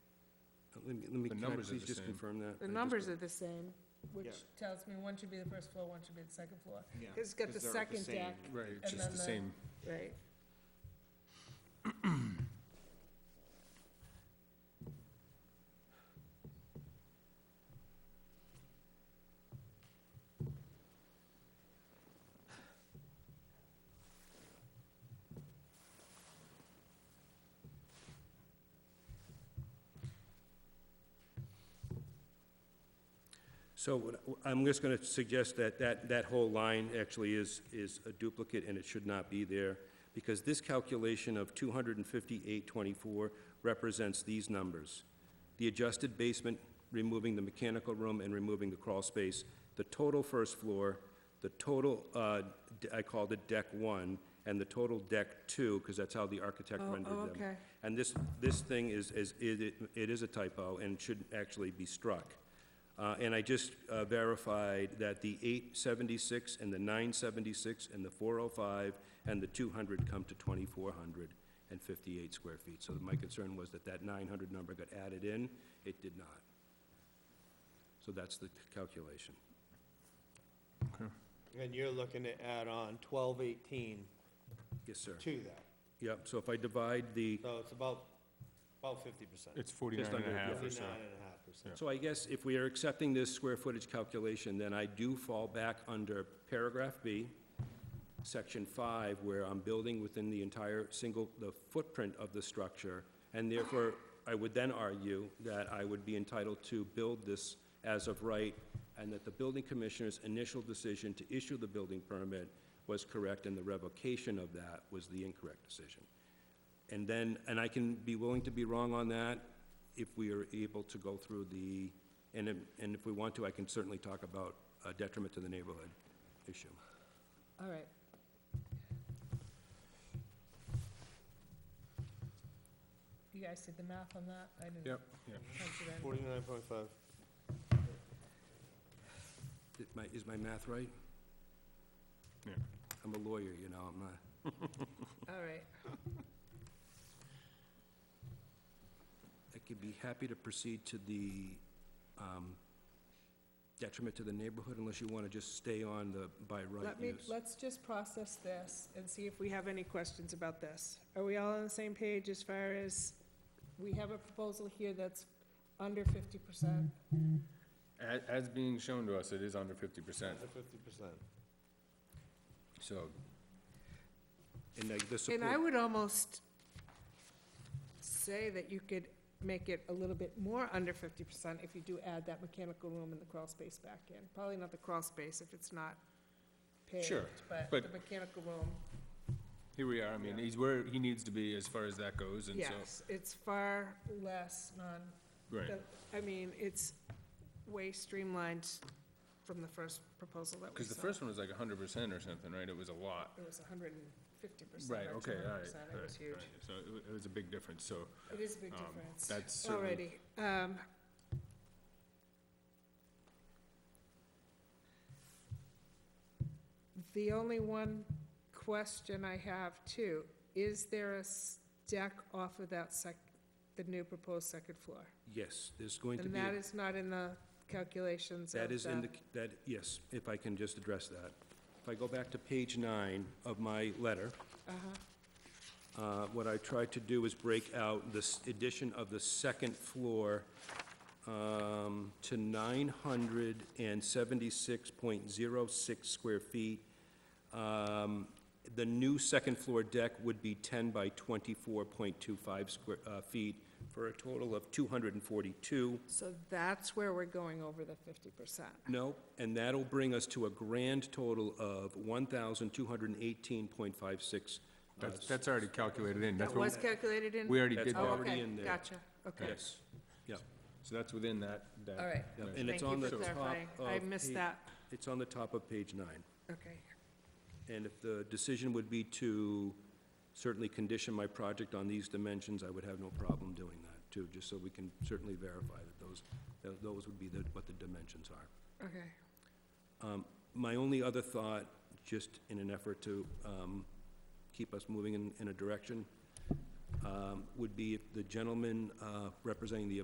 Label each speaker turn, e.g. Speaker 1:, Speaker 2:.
Speaker 1: Let me, let me,
Speaker 2: The
Speaker 1: can I
Speaker 2: numbers are
Speaker 1: please
Speaker 2: the
Speaker 1: just
Speaker 2: same.
Speaker 1: confirm that? I
Speaker 3: The
Speaker 1: just
Speaker 3: numbers
Speaker 1: want-
Speaker 3: are the same,
Speaker 4: Yeah.
Speaker 3: which tells me one should be the first floor, one should be the second floor.
Speaker 4: Yeah,
Speaker 3: Because it's got the
Speaker 4: 'cause they're
Speaker 3: second
Speaker 4: same.
Speaker 3: deck,
Speaker 2: Right,
Speaker 3: And
Speaker 2: it's just
Speaker 3: then
Speaker 2: the
Speaker 3: the-
Speaker 2: same.
Speaker 3: right.
Speaker 1: So what- I'm just going to suggest that, that, that whole line actually is, is a duplicate and it should not be there because this calculation of 25824 represents these numbers. The adjusted basement, removing the mechanical room and removing the crawl space, the total first floor, the total, uh, d- I called it deck one, and the total deck two, because that's how the architect
Speaker 3: Oh,
Speaker 1: rendered them.
Speaker 3: oh, okay.
Speaker 1: And this, this thing is, is, it, it is a typo and should actually be struck. Uh, and I just uh, verified that the eight seventy-six and the nine seventy-six and the four oh five and the two hundred come to twenty-four hundred and fifty-eight square feet. So my concern was that that nine hundred number got added in, it did not. So that's the calculation.
Speaker 4: And you're looking to add on twelve eighteen
Speaker 1: Yes, sir.
Speaker 4: to that,
Speaker 1: Yep, so if I divide the,
Speaker 4: so it's about, about fifty percent.
Speaker 2: It's 49 and
Speaker 1: under,
Speaker 2: a
Speaker 1: yeah.
Speaker 2: half or so.
Speaker 4: Fifty-nine and a half percent.
Speaker 1: so I guess if we are accepting this square footage calculation, then I do fall back under paragraph B, section five, where I'm building within the entire single, the footprint of the structure, and therefore, I would then argue that I would be entitled to build this as of right, and that the building commissioner's initial decision to issue the building permit was correct, and the revocation of that was the incorrect decision. And then, and I can be willing to be wrong on that if we are able to go through the, and if, and if we want to, I can certainly talk about a detriment to the neighborhood issue.
Speaker 3: All right. You guys did the math on that? I didn't.
Speaker 2: Yep, yep.
Speaker 3: punch it in.
Speaker 4: Forty-nine point five.
Speaker 1: Is my, is my math right?
Speaker 2: Yeah.
Speaker 1: I'm a lawyer, you know, I'm not,
Speaker 3: All right,
Speaker 1: I could be happy to proceed to the um, detriment to the neighborhood unless you want to just stay on the by right
Speaker 3: let me,
Speaker 1: use.
Speaker 3: let's just process this and see if we have any questions about this. Are we all on the same page as far as, we have a proposal here that's under fifty percent?
Speaker 2: As, as being shown to us, it is under 50%,
Speaker 4: fifty percent.
Speaker 2: so
Speaker 1: And like the
Speaker 3: And I
Speaker 1: support,
Speaker 3: would almost say that you could make it a little bit more under fifty percent if you do add that mechanical room and the crawl space back in. Probably not the crawl space if it's not paved,
Speaker 2: Sure,
Speaker 3: but the
Speaker 2: but-
Speaker 3: mechanical room,
Speaker 2: here we are. I mean, he's where he needs to be as far as that goes, and so,
Speaker 3: yes, it's far less non,
Speaker 2: right.
Speaker 3: I mean, it's way streamlined from the first proposal that we
Speaker 2: Because
Speaker 3: saw.
Speaker 2: the first one was like 100% or something, right? It was a lot.
Speaker 3: It was hundred and fifty percent
Speaker 2: Right,
Speaker 3: or two
Speaker 2: okay, all
Speaker 3: hundred
Speaker 2: right.
Speaker 3: percent,
Speaker 2: all
Speaker 3: it was
Speaker 2: right,
Speaker 3: huge.
Speaker 2: all right. So it wa- it was a big difference, so
Speaker 3: It is a big
Speaker 2: um,
Speaker 3: difference.
Speaker 2: that's certainly,
Speaker 3: Alrighty, um. The only one question I have too, is there a s- deck off of that sec, the new proposed second floor?
Speaker 1: yes, there's going to
Speaker 3: And
Speaker 1: be, a-
Speaker 3: that is not in the calculations of
Speaker 1: that
Speaker 3: the.
Speaker 1: is in the, that, yes, if I can just address that. If I go back to page nine of my letter,
Speaker 3: Uh-huh,
Speaker 1: Uh, What I tried to do is break out this addition of the second floor um, to 976.06 square feet. Um, The new second-floor deck would be 10 by 24.25 square, uh, feet, for a total of 242.
Speaker 3: so that's where we're going over the fifty percent.
Speaker 1: No, and that'll bring us to a grand total of 1,218.56. uh,
Speaker 2: that's, that's already calculated in. That's
Speaker 3: That
Speaker 2: what,
Speaker 3: was calculated in?
Speaker 2: we already did
Speaker 1: That's
Speaker 2: that.
Speaker 1: already in there.
Speaker 3: Oh, okay, gotcha, okay.
Speaker 1: Yes, yeah.
Speaker 2: So that's within that, that.
Speaker 3: All right.
Speaker 1: Yep,
Speaker 2: measure.
Speaker 1: And it's
Speaker 3: Thank you
Speaker 1: on the
Speaker 3: for
Speaker 1: top
Speaker 3: clarifying. I
Speaker 1: of
Speaker 3: missed
Speaker 1: pa-
Speaker 3: that.
Speaker 1: It's on the top of page nine.
Speaker 3: Okay.
Speaker 1: And if the decision would be to certainly condition my project on these dimensions, I would have no problem doing that, too, just so we can certainly verify that those, that those would be the- what the dimensions are.
Speaker 3: Okay,
Speaker 1: My only other thought, just in an effort to um, keep us moving in- in a direction, um, would be if the gentleman uh, representing the